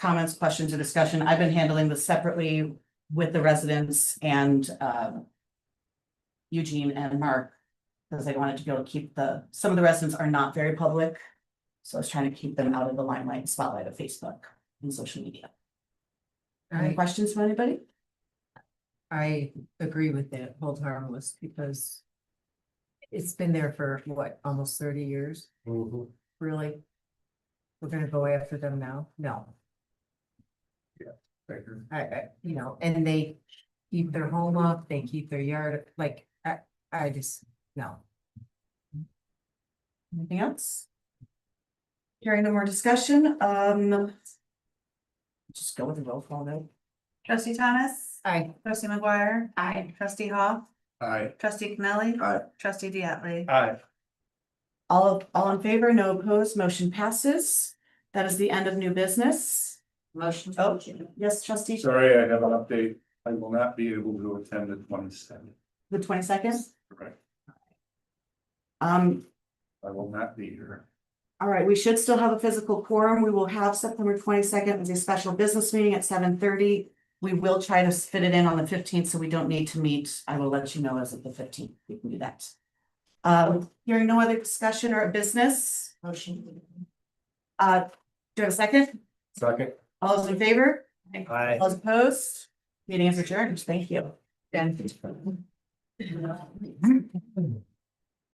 comments, questions, or discussion, I've been handling this separately with the residents and um, Eugene and Mark, because I wanted to be able to keep the, some of the residents are not very public. So I was trying to keep them out of the limelight spotlight of Facebook and social media. Any I, questions from anybody? I agree with that, hold harmless, because it's been there for what, almost thirty years, Mhm. really? We're gonna go after them now? No, I, I, you know, and they keep their home up, they keep their yard, like, I, I just, no. Anything else? Hearing no more discussion, um. Just go with the roll call then. Trustee Thomas, I, trustee McGuire. Aye. Trustee Hall, Aye. trustee Connolly. Aye. Trustee Diatley. Aye. All, of- all in favor, no opposed, motion passes. That is the end of new business. motion. Oh, yes, trustee, Sorry, I have an update. I will not be able to attend the twenty seventh, the twenty second. correct? Um, I will not be here. all right, we should still have a physical quorum. We will have September twenty second as a special business meeting at seven thirty. We will try to fit it in on the fifteenth, so we don't need to meet. I will let you know as of the fifteenth. We can do that. Uh, hearing no other discussion or business, Motion. uh, do I have a second? Second. All those in favor? Aye. All those opposed? Meeting is adjourned. Thank you. Done.